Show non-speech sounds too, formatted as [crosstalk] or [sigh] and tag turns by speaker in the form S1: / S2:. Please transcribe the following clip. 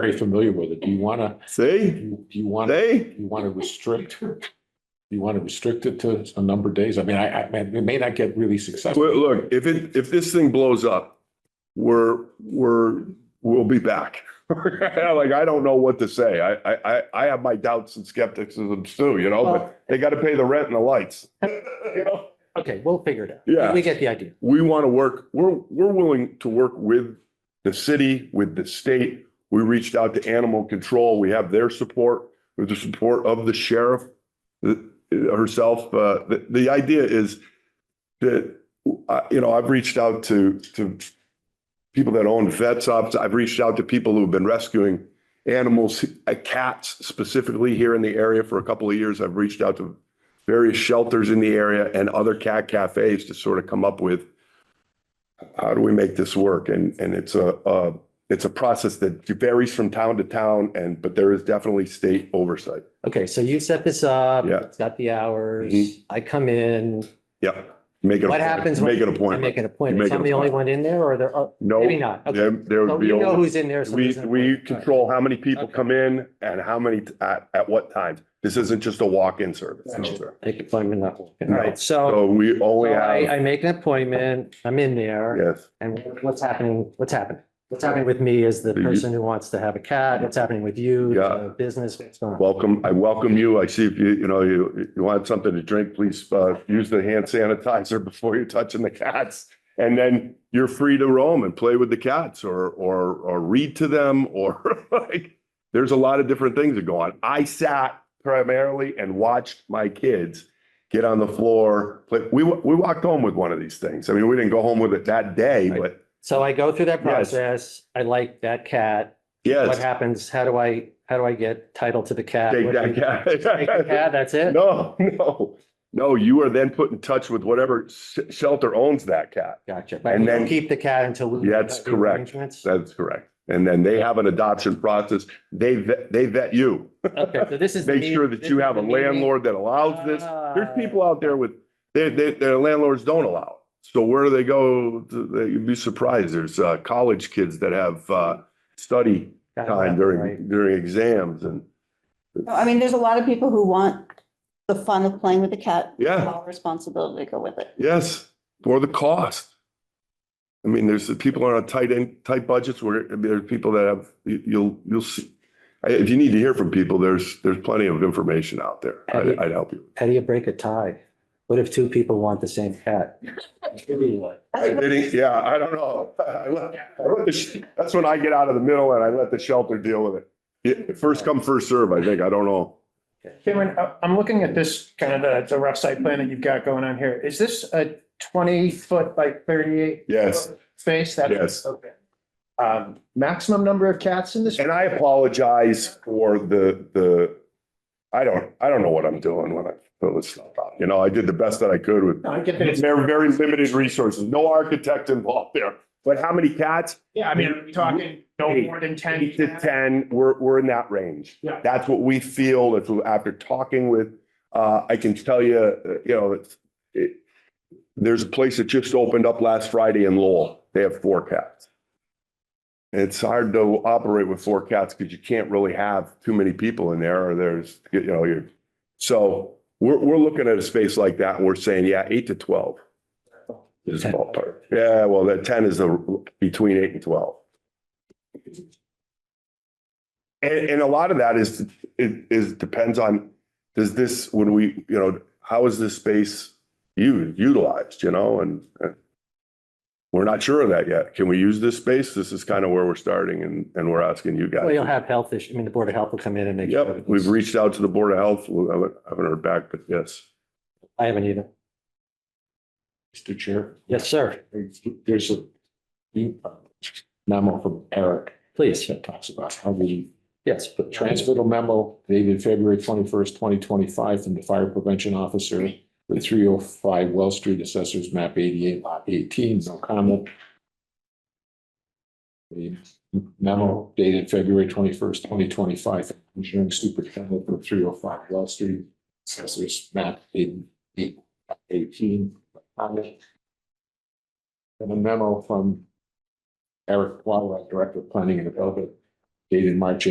S1: very familiar with it. Do you want to,
S2: See,
S1: do you want, do
S2: see?
S1: you want to restrict? Do you want to restrict it to a number of days? I mean, I, I, it may not get really
S2: Well,
S1: successful.
S2: look, if it, if this thing blows up, we're, we're, we'll be back. [laughs] Like, I don't know what to say. I, I, I, I have my doubts and skepticism too, you know, but they got to pay the rent and the lights. [laughs] You know?
S3: Okay, we'll figure it out.
S2: Yeah.
S3: We get the idea.
S2: we want to work, we're, we're willing to work with the city, with the state. We reached out to animal control. We have their support, with the support of the sheriff uh, herself. Uh, the, the idea is that, uh, you know, I've reached out to, to people that own vet shops. I've reached out to people who've been rescuing animals, uh, cats specifically here in the area for a couple of years. I've reached out to various shelters in the area and other cat cafes to sort of come up with how do we make this work? And, and it's a, uh, it's a process that varies from town to town and, but there is definitely state oversight.
S3: Okay, so you set this up.
S2: Yeah.
S3: It's got the hours.
S2: Mhm.
S3: I come in.
S2: Yeah. Make it. a
S3: What
S2: point.
S3: happens when
S2: Make it a
S3: I make
S2: point.
S3: an appointment?
S2: Make
S3: So I'm
S2: an
S3: the only
S2: appointment.
S3: one in there or there are,
S2: No,
S3: maybe not. Okay.
S2: there, there
S3: So
S2: would be.
S3: you know
S2: only-
S3: who's in there. so
S2: We,
S3: there's an
S2: we
S3: appointment. All right.
S2: control how many people
S3: Okay.
S2: come in and how many, t- at, at what time. This isn't just a walk-in service.
S3: Gotcha. Make appointment, not walk in. All
S2: No.
S3: right, so
S2: So we
S3: so
S2: only
S3: I, I
S2: have,
S3: make an appointment, I'm in there
S2: yes.
S3: and what's happening, what's happening? What's happening with me is the
S2: You-
S3: person who wants to have a cat. What's happening with you,
S2: Yeah.
S3: the business? What's going on?
S2: Welcome, I welcome you. I see if you, you know, you, you want something to drink, please, uh, use the hand sanitizer [laughs] before you're touching the cats. And then you're free to roam and play with the cats or, or, or read to them or [laughs] like, there's a lot of different things that go on. I sat primarily and watched my kids get on the floor. play we, wa- we walked home with one of these things. I mean, we didn't go home with it that day,
S3: Right.
S2: but
S3: So I go through that
S2: Yes.
S3: process. I like that cat. What
S2: yes.
S3: happens? How do I, how do I get title to the cat?
S2: Take
S3: What do
S2: that
S3: you-
S2: cat.
S3: Take the cat, that's [laughs] it?
S2: No, no, no, you are then put in touch with whatever sh- shelter owns that cat.
S3: Gotcha. But
S2: And
S3: we don't
S2: then-
S3: keep the cat until. we-
S2: That's
S3: the
S2: correct.
S3: arrangements?
S2: That's correct. And then they have an adoption process. They, vet- they vet you.
S3: Okay, so this is. the
S2: Make
S3: meeting-
S2: sure that
S3: this
S2: you
S3: is
S2: have a
S3: the meeting.
S2: landlord that allows this. There's
S3: Ah.
S2: people out there with, they, they, their landlords don't allow. it. So where do they go? You'd be surprised. There's, uh, college kids that have, uh, study
S3: Got it,
S2: time
S3: right.
S2: during, during exams and,
S4: No, I mean, there's a lot of people who want the fun of playing with the cat.
S2: yeah.
S4: All responsibility to go with it.
S2: Yes, or the cost. I mean, there's the people on a tight end, tight budgets where there are people that have, you- you'll, you'll see. I- If you need to hear from people, there's, there's plenty of information out there. I'd, I'd help you.
S3: How do you break a tie? What if two people want the same cat?
S2: I didn't, yeah, I don't know. I let- I let the sh- That's when I get out of the middle and I let the shelter deal with it. Yeah, First come, first serve, I think. I don't know.
S5: Cameron, I- I'm looking at this kind of the, the rough site plan that you've got going on here. Is this a twenty foot by thirty-eight
S2: Yes,
S5: space? That's-
S2: Yes.
S5: Okay. Um, maximum number of cats in this?
S2: and I apologize for the, the, I don't, I don't know what I'm doing when I fill this stuff out. You know, I did the best that I could with
S5: No, I get that it's,
S2: Very, very limited resources, no architect involved there. But how many cats?
S5: yeah, I mean, are we talking no
S2: Eight.
S5: more than ten
S2: Eight to
S5: cats?
S2: ten, we're, we're in that range.
S5: Yeah.
S2: That's what we feel if, we- after talking with, uh, I can tell you, uh, you know, it's, it, there's a place that just opened up last Friday in Lowell. They have four cats. It's hard to operate with four cats because you can't really have too many people in there or there's, you know, you're, so we're, we're looking at a space like that and we're saying, yeah, eight to twelve. Is ballpark. Yeah, well, that ten is the, between eight and twelve. And, and a lot of that is, it is, depends on, does this, when we, you know, how is this space u- utilized, you know, and and we're not sure of that yet. Can we use this space? This is kind of where we're starting and, and we're asking you
S3: Well, you'll
S2: guys.
S3: have health issues. I mean, the Board of Health will come in and make. sure
S2: Yep, we've
S3: everything's-
S2: reached out to the Board of Health. We haven't, haven't heard back, but yes.
S3: I haven't either.
S1: Mr. Chair.
S3: Yes, sir.
S1: There's a uh, memo from Eric
S3: Please.
S1: that talks about how we
S3: Yes, but
S1: Transmittal memo dated February twenty-first, twenty twenty-five from the Fire Prevention Officer with three oh five Well Street Assessors Map eighty-eight, Lot eighteen, no comment. The memo dated February twenty-first, twenty twenty-five, engineering superintendent for three oh five Well Street Assessors Map 88, Lot 18. no comment. And a memo from Eric Quadwell, Director of Planning and Development, dated March